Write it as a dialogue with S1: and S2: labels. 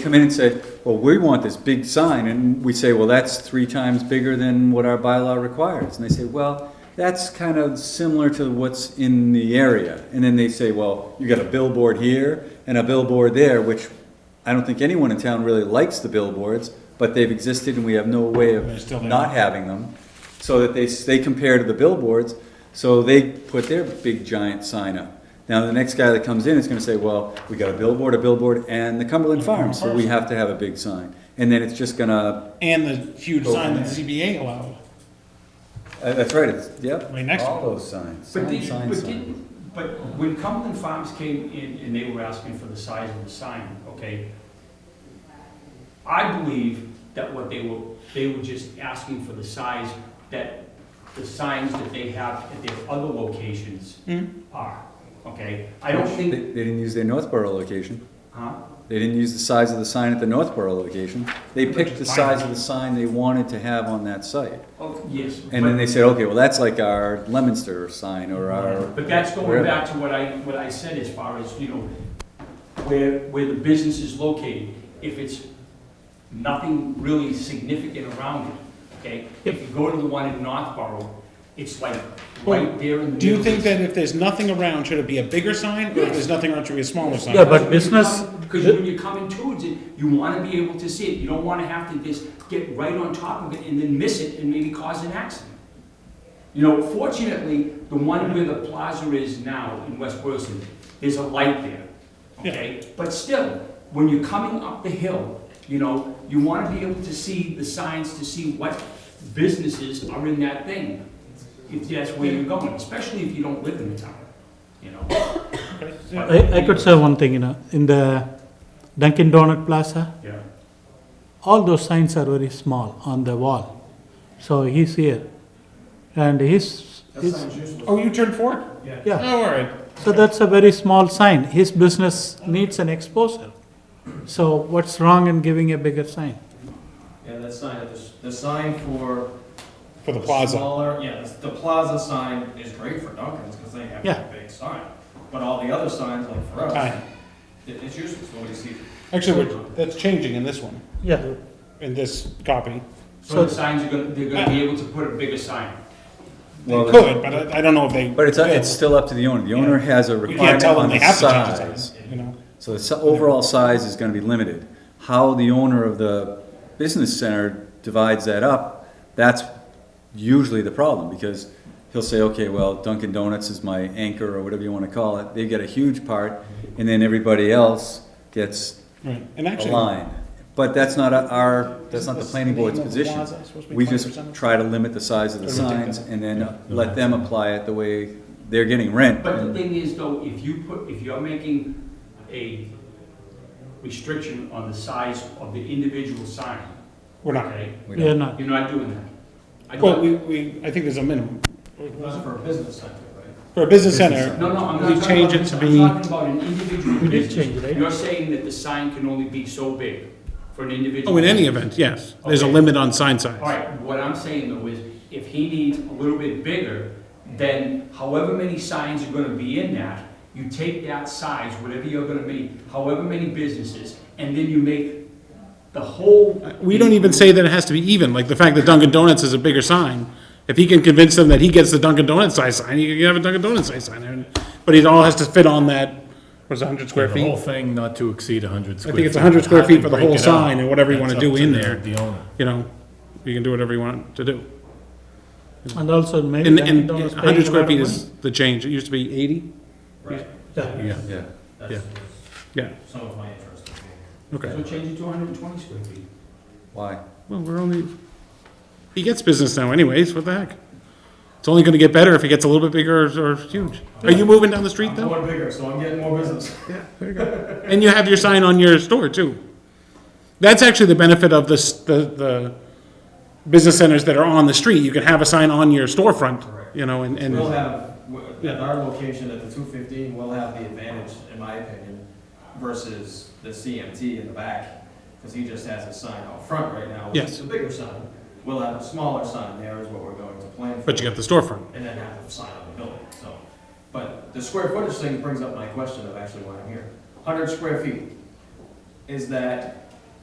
S1: come in and say, well, we want this big sign, and we say, well, that's three times bigger than what our bylaw requires, and they say, well, that's kind of similar to what's in the area, and then they say, well, you got a billboard here and a billboard there, which I don't think anyone in town really likes the billboards, but they've existed and we have no way
S2: They're still
S1: of
S2: there.
S1: not having them, so that they, s- they compare to the billboards, so they put their big giant sign up. Now, the next guy that comes in is gonna say, well, we got a billboard, a billboard, and the Cumberland Farms, so we have to have a big sign. And then it's just gonna,
S2: And the huge
S1: Oh,
S2: sign that
S1: man.
S2: ZBA allowed,
S1: uh, that's right, it's, yep,
S2: right next to
S1: all
S2: it.
S1: those signs,
S3: But
S1: sign,
S3: they,
S1: sign,
S3: but
S1: sign.
S3: didn't, but when Cumberland Farms came in and they were asking for the size of the sign, okay? I believe that what they were, they were just asking for the size that the signs that they have at their other locations
S1: Hmm?
S3: are, okay? I don't
S1: They,
S3: think,
S1: they didn't use their Northborough location,
S3: huh?
S1: they didn't use the size of the sign at the Northborough location, they
S2: But
S1: picked
S2: just
S1: the
S2: buy
S1: size
S2: it.
S1: of the sign they wanted to have on that site.
S3: Oh, yes.
S1: And then they said, okay, well, that's like our Lemonster sign or our.
S3: But that's going
S1: wherever.
S3: back to what I, what I said as far as, you know, where, where the business is located. If it's nothing really significant around it, okay? If you go to the one in Northborough, it's like right there in the.
S2: Do you
S3: middle.
S2: think that if there's nothing around, should it be a bigger sign, or if there's nothing around, should it be a smaller sign?
S4: Yeah, but
S3: When you
S4: business,
S3: come- Because um, when you're coming towards it, you wanna be able to see it. You don't wanna have to just get right on top of it and then miss it and maybe cause an accident. You know, fortunately, the one where the plaza is now in West Boylston, there's a light there,
S2: Yeah.
S3: okay? But still, when you're coming up the hill, you know, you wanna be able to see the signs to see what businesses are in that thing. If that's where you're going, especially if you don't live in the town, you know?
S2: Okay, yeah.
S4: I, I could say one thing, you know, in the Dunkin' Donut Plaza,
S3: Yeah.
S4: all those signs are very small on the wall. So he's here, and his, his,
S2: Oh, you turned forward?
S4: yeah.
S2: Oh, all right.
S4: So that's a very small sign. His business needs an exposure. So what's wrong in giving a bigger sign?
S5: Yeah, that sign, the, s- the sign for.
S2: For the plaza.
S5: Smaller, yeah, the the plaza sign is great for Dunkin's, because they have
S4: Yeah.
S5: a big sign. But all the other signs, like for us,
S2: Hi.
S5: it- it's useless, nobody sees it.
S2: Actually, we're- that's changing in this one,
S4: Yeah,
S2: in this copy.
S3: So the signs are gonna, they're gonna be able to put a bigger sign.
S2: They
S1: Well,
S2: could, but I, I don't know if they.
S1: But it's,
S2: will.
S1: it's still up to the owner. The owner has a
S2: We
S1: requirement
S2: can't tell
S1: on
S2: them they
S1: the
S2: have to change the
S1: size.
S2: signs, you know?
S1: So the si- overall size is gonna be limited. How the owner of the business center divides that up, that's usually the problem, because he'll say, okay, well, Dunkin' Donuts is my anchor, or whatever you wanna call it. They get a huge part, and then everybody else gets
S2: Right, and
S1: a
S2: actually.
S1: line. But that's not a- our, that's
S2: Isn't
S1: not the
S2: this
S1: planning board's
S2: name of
S1: position.
S2: Plaza supposed to be
S1: We just
S2: 20%?
S1: try to limit the size of the
S2: Or we take
S1: signs,
S2: that.
S1: and then let them apply it the way they're getting rent.
S3: But the
S1: And-
S3: thing is though, if you put, if you're making a restriction on the size of the individual sign,
S2: We're not.
S3: okay?
S1: We
S4: we are
S1: don't-
S4: not.
S3: You're not doing that. I
S2: Well,
S3: don't,
S2: we, we, I think there's a minimum.
S5: That's for a business center, right?
S2: For a business
S1: Business
S2: center,
S3: no, no, I'm
S2: we
S3: not talking
S2: change it
S3: about,
S2: to
S3: I'm
S2: be-
S3: talking about an individual
S4: We did
S3: business.
S4: change it, right?
S3: You're saying that the sign can only be so big for an individual.
S2: eh? oh, in any event, yes, there's a
S3: Okay.
S2: limit on sign size.
S3: All right, what I'm saying though is, if he needs a little bit bigger, then however many signs are gonna be in that, you take that size, whatever you're gonna make, however many businesses, and then you make the whole.
S2: We don't even say that it has to be even, like the fact that Dunkin' Donuts is a bigger sign. If he can convince them that he gets the Dunkin' Donuts size sign, he can have a Dunkin' Donuts size sign there. and- But it all has to fit on that, was it hundred square
S6: The whole
S2: feet?
S6: thing not to exceed hundred square feet.
S2: think it's 100 square
S6: How they
S2: feet for the
S6: break
S2: whole
S6: it up,
S2: sign and whatever you wanna
S6: that's up
S2: do
S6: to
S2: in
S6: the-
S2: there.
S6: The owner.
S2: You know, you can do whatever you want to do.
S4: And also maybe
S2: And,
S4: Dunkin'
S2: and
S4: Donuts
S2: hundred
S4: paying a lot
S2: square
S4: of
S2: feet
S4: money.
S2: is the change, it used to be eighty?
S5: Right,
S4: Yeah,
S6: Yeah.
S1: Yeah.
S5: that's
S2: Yeah,
S5: some of my interest. in being here.
S2: okay.
S3: So change it to hundred and twenty square feet.
S1: Why?
S2: Well, we're only, he gets business now anyways, what the heck? It's only gonna get better if he gets a little bit bigger or, or huge. Are you moving down the street
S5: I'm
S2: though?
S5: going bigger, so I'm getting more business.
S2: Yeah, there you go. And you have your sign on your store too. That's actually the benefit of this, the, the business centers that are on the street. You can have a sign on your storefront, you know, and,
S5: We'll
S2: and,
S5: have, w- at our location at the two fifteen, we'll have the advantage, in my opinion, versus the CMT in the back, because he just has a sign out front right now. which is
S2: Yes.
S5: A bigger sign. We'll have a smaller sign there is what we're going to plan for.
S2: but you got the storefront.
S5: And then have a sign on the building, so. But the square footage thing brings up my question of actually why I'm here. Hundred square feet, is that